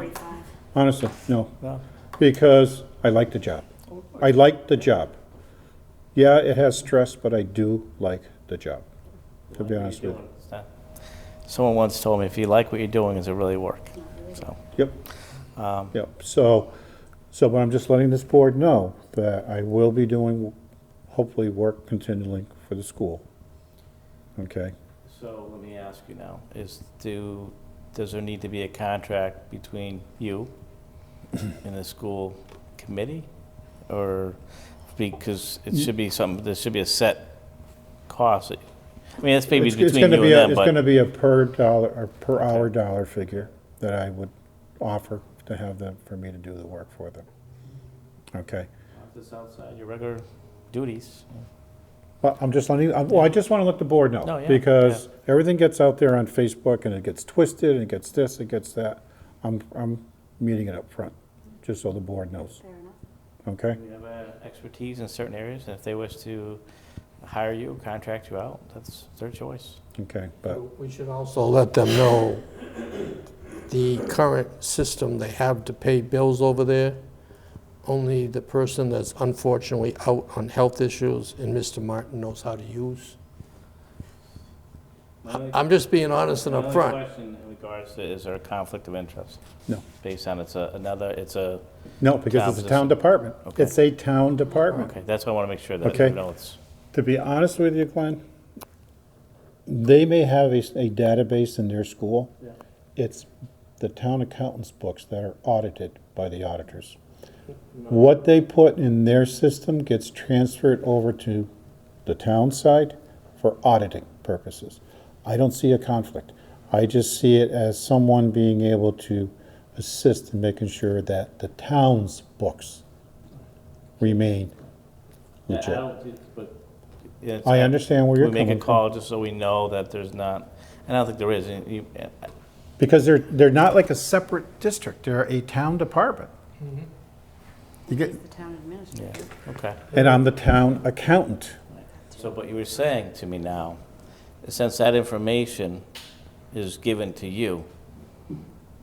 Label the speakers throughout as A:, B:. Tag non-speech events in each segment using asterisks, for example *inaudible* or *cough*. A: Forty-five.
B: Honestly, no,
C: No?
B: because I like the job. I like the job. Yeah, it has stress, but I do like the job, to be honest with you.
C: Someone once told me, if you like what you're doing, is it really work? So,
B: Yep,
C: um,
B: yep. So, so, but I'm just letting this board know that I will be doing, hopefully, work continually for the school. Okay?
C: so let me ask you now, is do, does there need to be a contract between you *clears throat* and the school committee? Or, because it should be some, there should be a set cost. that- I mean, it's maybe
B: It's- it's
C: between
B: gonna
C: you
B: be a-
C: and them,
B: It's gonna
C: but,
B: be a per dollar, or per hour dollar figure that I would offer to have them, for me to do the work for them. Okay?
C: it's outside your regular duties.
B: Well, I'm just letting, you- I'm- well, I just want to let the board
C: No,
B: know,
C: yeah,
B: because everything gets out there on Facebook, and it gets twisted, and it gets this, it gets that. I'm, I'm meeting it up front, just so the board knows,
A: Fair enough.
B: okay?
C: You have uh, expertise in certain areas, and if they wish to hire you, contract you out, that's their choice.
B: Okay, but,
D: We should also let them know the current system they have to pay bills over there. Only the person that's unfortunately out on health issues and Mr. Martin knows how to use. I'm just being honest and
C: My
D: upfront.
C: only question in regards to, is there a conflict of interest?
B: No.
C: Based on it's a, another, it's a,
B: no, because it's a town
C: Town position.
B: department.
C: Okay.
B: It's a town department.
C: okay, that's why I want to make sure that,
B: Okay.
C: you know, it's,
B: To be honest with you, Glenn, they may have a, s- a database in their school. It's the town accountant's books that are audited by the auditors. What they put in their system gets transferred over to the town side for auditing purposes. I don't see a conflict. I just see it as someone being able to assist in making sure that the town's books remain
C: I
B: legit.
C: don't, but. it's-
B: I understand where you're
C: We make
B: coming
C: a
B: from.
C: call just so we know that there's not, and I don't think there is, and you,
B: Because they're, they're not like a separate district, they're a town department.
C: Mm-hmm.
B: You get,
A: The town administrator.
C: okay.
B: and I'm the town accountant.
C: So, but you were saying to me now, since that information is given to you,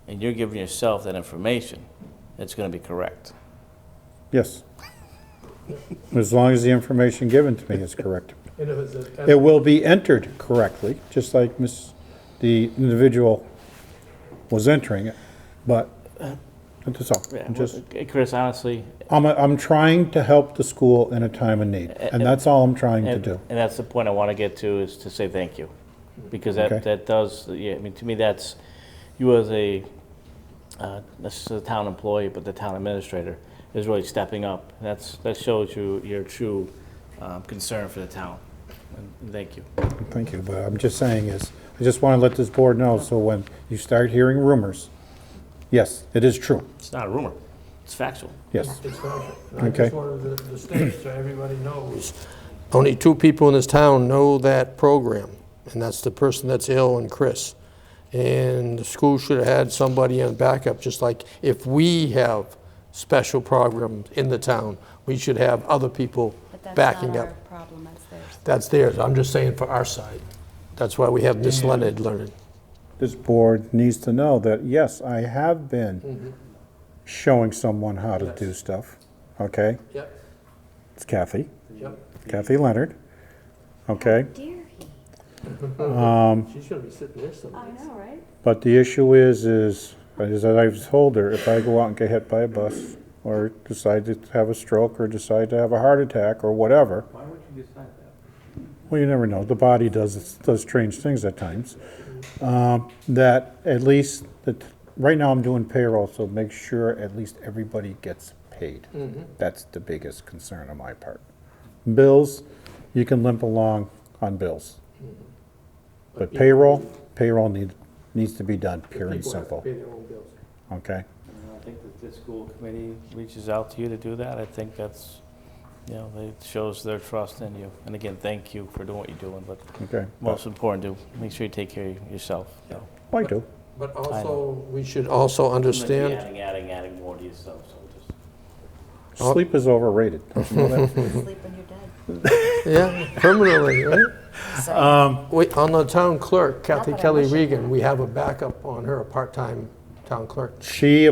C: and you're giving yourself that information, it's gonna be correct.
B: Yes. As long as the information given to me is
D: *laughs*
B: correct.
D: And if it's a-
B: It will be entered correctly, just like Miss, the individual was entering it, but that's all. I'm just,
C: Chris, honestly,
B: I'm, a- I'm trying to help the school in a time of need, and that's all I'm trying to
C: and,
B: do.
C: and that's the point I wanna get to, is to say thank you. Because
B: Okay.
C: that, that does, yeah, I mean, to me, that's, you as a, uh, this is a town employee, but the town administrator is really stepping up. That's, that shows you your true, um, concern for the town, and thank you.
B: Thank you, but I'm just saying is, I just want to let this board know, so when you start hearing rumors, yes, it is true,
C: It's not a rumor. It's factual.
B: yes.
D: it's not- I
B: Okay.
D: just wanted to- to state so everybody knows. Only two people in this town know that program, and that's the person that's ill and Chris. And the school should have had somebody in backup, just like if we have special programs in the town, we should have other people
A: But that's
D: backing
A: not
D: up.
A: our problem, that's theirs.
D: That's theirs, I'm just saying for our side. That's why we have Miss Leonard learning.
B: This board needs to know that, yes, I have been showing someone how to do stuff, okay?
D: Yep,
B: It's Kathy,
D: yep,
B: Kathy Leonard, okay?
A: Dear he.
D: she's gonna be sitting there someday.
A: I know, right?
B: But the issue is, is, is that I've told her, if I go out and get hit by a bus, or decide to have a stroke, or decide to have a heart attack, or whatever. Why would you decide that? Well, you never know, the body does, does strange things at times. Um, That at least, that, right now I'm doing payroll, so make sure at least everybody gets paid.
D: Mm-hmm.
B: That's the biggest concern on my part. Bills, you can limp along on bills.
D: Mm-hmm.
B: But payroll, payroll need, needs to be done, pure and
D: People have to
B: simple,
D: pay their own bills.
B: okay?
C: I think that the school committee reaches out to you to do that. I think that's, you know, it shows their trust in you. And again, thank you for doing what you're doing, but
B: Okay.
C: most important, do make sure you take care of yourself. so.
B: I do.
D: But also, we should also understand
C: Adding, adding, adding more to yourself, so just.
D: Oh.
B: Sleep is overrated. Don't you know that?
A: Sleep when you're dead.
D: Yeah, permanently, right?
A: So,
D: Wait, on the town clerk, Kathy
A: that I
D: Kelly
A: wish it-
D: Regan, we have a backup on her, a part-time town clerk.
B: She